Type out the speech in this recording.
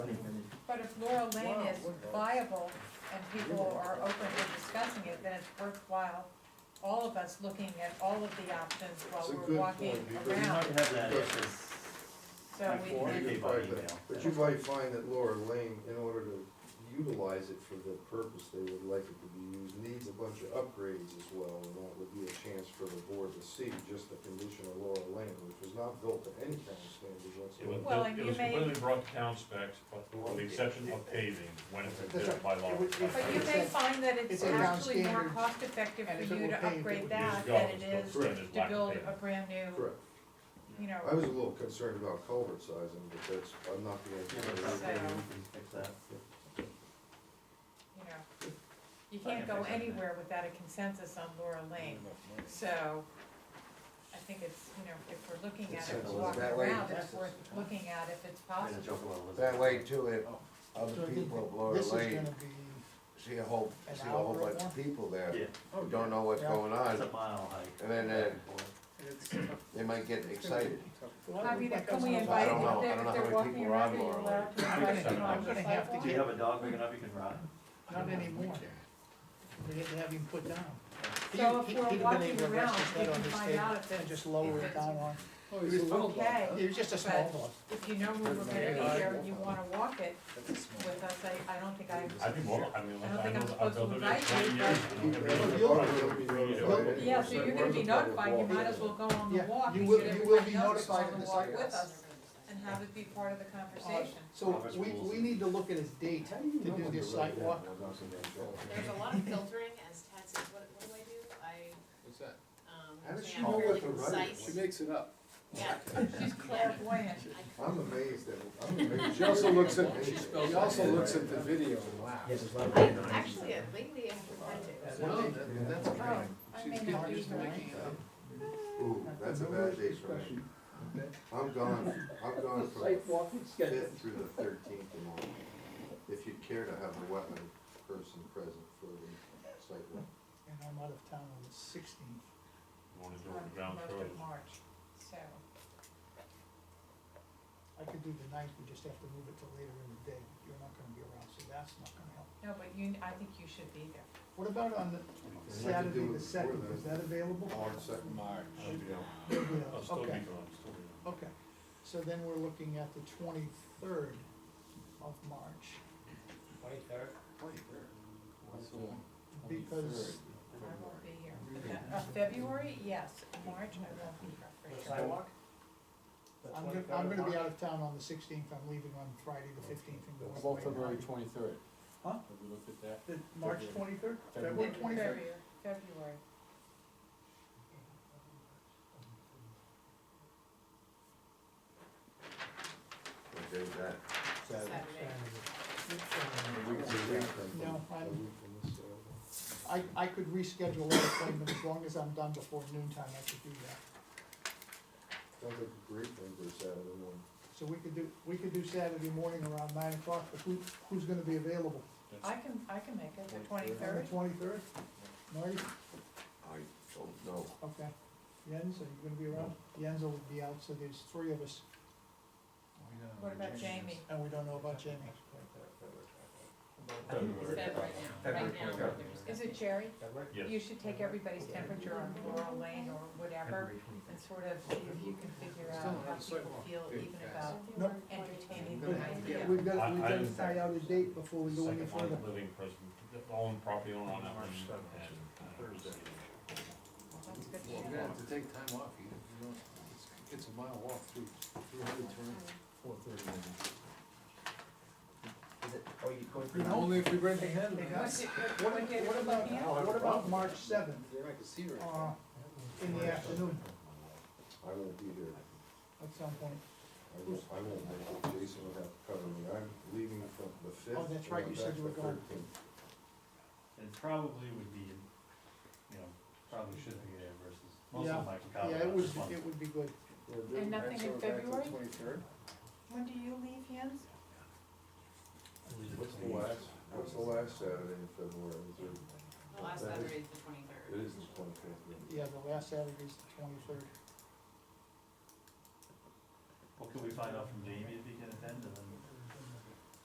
Laurel Lane Wow, is what the- viable and people are open to discussing it, then it's worthwhile, all of us looking at all of the options It's while a we're good walking point, because We might around. have that Because- after So we before. can, You communicate can by find that. email. But you might find that Laura Lane, in order to utilize it for the purpose they would like it to be used, needs a bunch of upgrades as well, and that would be a chance for the board to see just the condition of Laura Lane, which was not built to any kind of standards It was whatsoever. Well, and built- it you was may- completely brought to town specs, but with the exception of paving, when it's been built by law. It would- it- but you may find that it's It's a town actually more standard, cost effective and if for it you were to paved, it upgrade would that Years ago, than it was it built is standard to black build paving. a brand new, Correct. you know. I was a little concerned about culvert sizing, but that's, I'm not the engineer. So- Fix that. you know, you can't Mm-hmm. go anywhere without a consensus on Laura Lane. So I think it's, you know, if we're looking at it, we're walking That way- around, it's worth looking at if it's possible. That way too, if So other I think people of Laura This is Lane gonna be, see a whole, an see a whole hour or bunch of more? people there, Yeah, who uh, Oh, don't know what's Yeah. going it's a on, mile hike. and then uh, they, it's. they might get excited. I mean, Like can us on we the- invite don't know- them, I if don't know how they're many walking people are on around, are you Laura allowed to Yeah, invite them sometimes. on the I'm gonna have to sidewalk? Do you have a dog big enough you can ride? Not anymore. We had to have him put down. He- So if he- we're he'd been walking able to rest his around, head we on can his find table out if And it's- just lower it down on, Okay, it was just a small one. if you know we we're gonna be here and you wanna walk it with us, I, I don't think I, I'd be more, I mean, I don't I think I'm know, I've supposed to built it invite in twenty you, years. but- and everything. The culvert will be notified anyway, yeah, so it you're gonna be wasn't public notified, you walk. might as well go on the Yeah, walk you and will- get you will be everybody else notified on in the the walk site. with us and have it be part of the conversation. So we, we need to look at his date How do you to know do when this the right sidewalk. one was in that culvert? There's a lot of filtering as Ted says, what, what do I do? I, What's that? um, How does she am know what fairly the right is? She concise. makes it up. Yeah, Oh, She's clairvoyant. I- I'm amazed at, I'm amazed. She also looks at, Amazed. she also looks at the video and laughs. I, actually, uh, lately I haven't had to. No, that- that's Oh, kind. I may She's not getting be used to here. making it up. Ooh, that's a bad day for me. I'm gone, I'm gone from the fifth through the thirteenth and all. If you'd care to have a wetland person present for the site. And I'm out of town on the sixteenth. You wanna Most do it with ground of frozen. March, so, I could do the ninth, we just have to move it to later in the day. You're not gonna be around, so that's not gonna help. no, but you, I think you should be there. What about on the Saturday, the second, is that available? March second. March. Yeah, I'll still be Okay, gone, still be gone. okay. So then we're looking at the twenty-third of March, Twenty-third? because I won't be here. Uh, February, yes, March, I won't be here for sure. I'm gonna, I'm gonna be out of town on the sixteenth, I'm leaving on Friday the fifteenth and going away. About February twenty-third. Huh? Have we looked at that? The March twenty-third, February, February twenty-third, February. Okay, that. Saturday. A week from this- No, I'm- a week from this Saturday. I, I could reschedule that appointment as long as I'm done before noontime. I could do that. Sounds like a great thing for Saturday morning. So we could do, we could do Saturday morning around nine o'clock, but who, who's gonna be available? I can, I can make it, the On the twenty-third. twenty-third? Marty, I don't know. okay. Jens, are you gonna be around? Jens will be out, so there's three of us, What about Jamie? and we don't know about Jamie. It's February, Feb right now, right now, there's Is nothing. it Jerry? You yes. should take everybody's temperature on Laurel Lane or whatever and sort of see if you can figure out how people feel even about No. entertaining But the idea. we've got, I- we've got to I'm- tie out a date before we go any Second further. one, living prison, own property owner on that one, and. uh, Thursday. That's good Well, to you're gonna know. have to take time off, you you know, it's, it's a mile walk through, through hundred turns. Four thirty. oh, Only if we bring the hand. What's it- What, what day what we're about, looking at? what about March seventh, Then I can see her. uh, in the afternoon I won't be here. at some point? I won't, I won't make it, Jason will have to cover me, I'm leaving from the fifth. Oh, that's right, you said you were going. It probably would be, you know, probably should be there versus most Yeah. of my Yeah, colleagues. it would, it would be good. And nothing in February? Twenty-third. When do you leave, Jens? What's the last, what's the last uh, Saturday in February? Is there- The last Saturday is the twenty-third. It is the twenty-fifth. Yeah, the last Saturday is the twenty-third. Well, could we find out from Jamie if he can attend and then